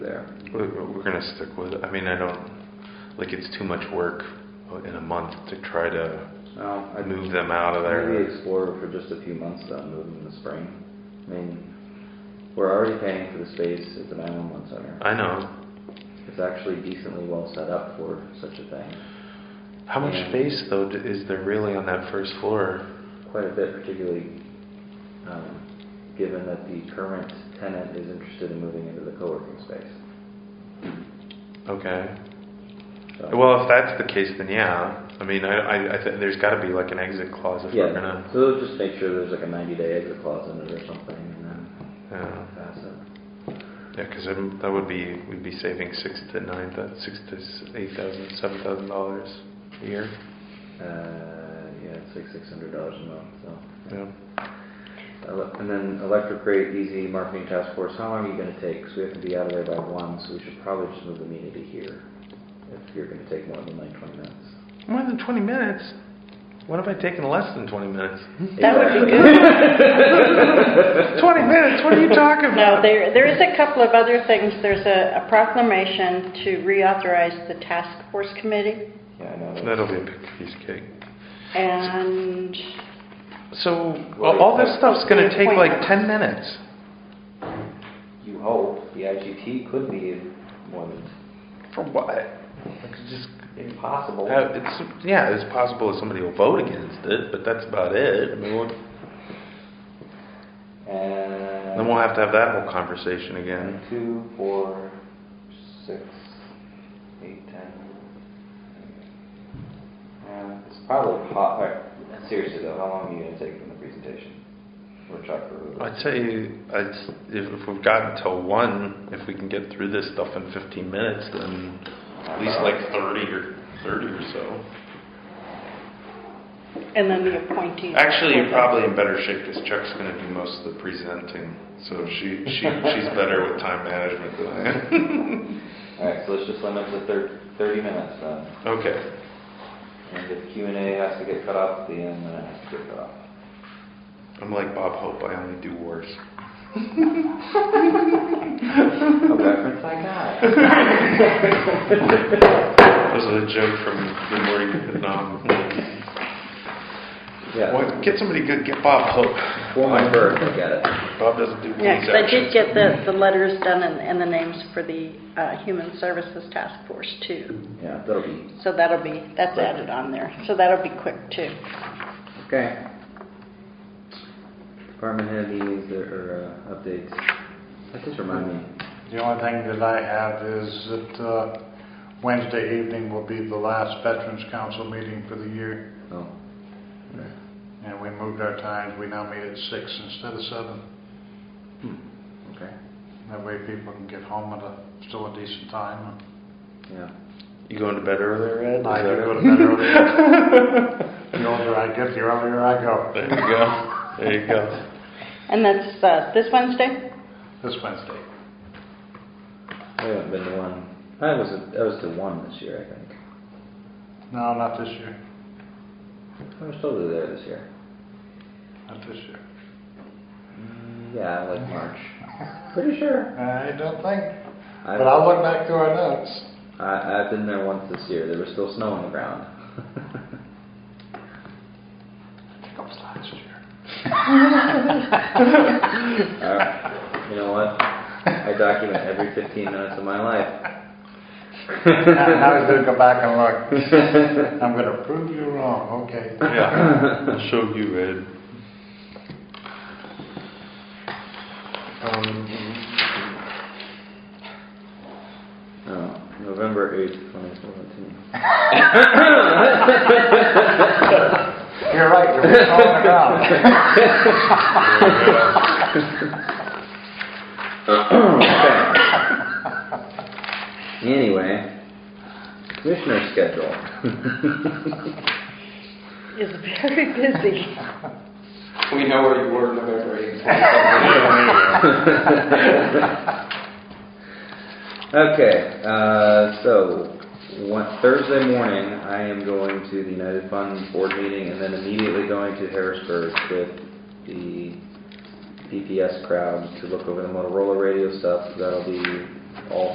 there. We're, we're gonna stick with it. I mean, I don't, like, it's too much work in a month to try to Well, I move them out of Maybe there. explore for just a few months, then move in the spring. I mean, we're already paying for the space at the 911 center. I know. It's actually decently well set up for such a thing. How much Yeah. space, though, d- is there really on that first floor? Quite a bit, particularly um, given that the current tenant is interested in moving into the co-working space. Okay. So- Well, if that's the case, then yeah. I mean, I, I, I think there's gotta be like an exit clause if we're Yeah, gonna, so they'll just make sure there's like a 90-day exit clause in it or something, and then yeah. pass it. Yeah, because that would be, we'd be saving six to nine, thou- six to s- eight thousand, seven thousand dollars a year. Uh, Yeah, it's like $600 a month, so. Yeah. Ele- Uh, And then electric rate, easy marketing task force, how long are you gonna take? So we have to be out of there by one, so we should probably just move the meeting to here, if you're gonna take more than like twenty minutes. More than twenty minutes? What have I taken less than twenty minutes? That would be Exactly. good. Twenty minutes? What are you talking about? No, there, there is a couple of other things. There's a a proclamation to reauthorize the task force committee, Yeah, I know. That'll be a big piece of cake. and So all all this stuff's gonna take like ten minutes. You hope, the IGT could be in more than, For what? Like, it's just, impossible. uh, it's, yeah, it's possible that somebody will vote against it, but that's about it. I mean, we'll- And. then we'll have to have that whole conversation again. Two, four, six, eight, ten. Uh, it's probably hot, alright, seriously though, how long are you gonna take from the presentation? Or Chuck or? I'd say, I'd, s- if if we've got until one, if we can get through this stuff in fifteen minutes, then at least like thirty or, thirty or so. And then the appointees. Actually, you're probably in better shape because Chuck's going to do most of the presenting, so she, she she's better with time management than I am. Alright, so let's just limit to thir- thirty minutes then, Okay, and if Q and A has to get cut off, at the end then it has to get cut off. I'm like Bob Hope. I only do worse. A reference I got. That was a joke from Good Morning Vietnam. Yeah, Well, get somebody good. Get Bob Hope. for my birth, I get it. Bob doesn't do Yeah, police 'cause I did actions. get the, the letters done and, and the names for the uh, Human Services Task Force too. Yeah, that'll be, So that'll be, that's added on there. So that'll be quick too. okay. Department head meetings or, uh, updates, that just remind me, The only thing that I have is that uh, Wednesday evening will be the last Veterans Council meeting for the year. oh. And we moved our times, we now meet at six instead of seven. Hmm. Okay, That way people can get home at a, still a decent time. yeah. You going to bed earlier, Ed? Is I that- do go to bed earlier. The older I get, the earlier I go. There you go. There you go. And that's uh, this Wednesday? This Wednesday. I haven't Oh, been to one. I was I was to one this year, I think. No, not this year, I was totally there this year. not this year. Mm, Yeah, like March. Pretty sure. I don't think, I've, but I'll look back through our notes. I, I've been there once this year. There was still snow on the ground. I think it was last year. Uh, you know what? I document every 15 minutes of my life. Now he's gonna go back and look. I'm gonna prove you wrong, okay. Yeah. I'll show you, Ed. Um, Oh, November 8th, 2017. You're right, you're wrong around. Anyway, commissioner schedule. Is very busy. We know where you were November 8th. Okay, uh, so, one, Thursday morning, I am going to the United Fund Board meeting and then immediately going to Harrisburg with the PPS crowd to look over the Motorola radio stuff. That'll be all